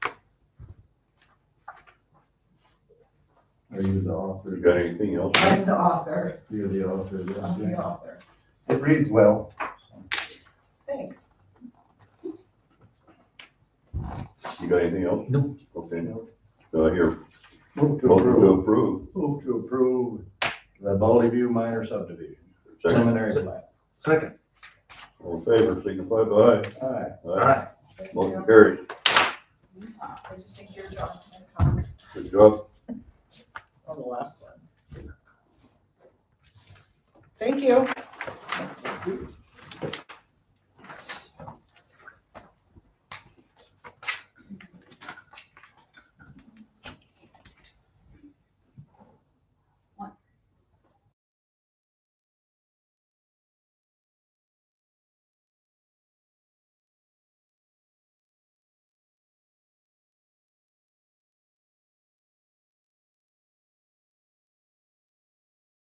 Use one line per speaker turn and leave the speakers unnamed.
Are you the author?
You got anything else?
I'm the author,
You're the author of
I'm the
that.
author,
It reads well.
thanks.
You got anything else?
No.
Okay. Do I hear,
Move to
motion to
approve.
approve?
Move to approve the Valley View minor subdivision,
Second,
preliminary plat.
Second.
all in favor, signify by
Aye.
aye. Aye.
Thank
Motion
you.
carries.
Uh, I just think your job is comment
Good job.
on the last one. Thank you.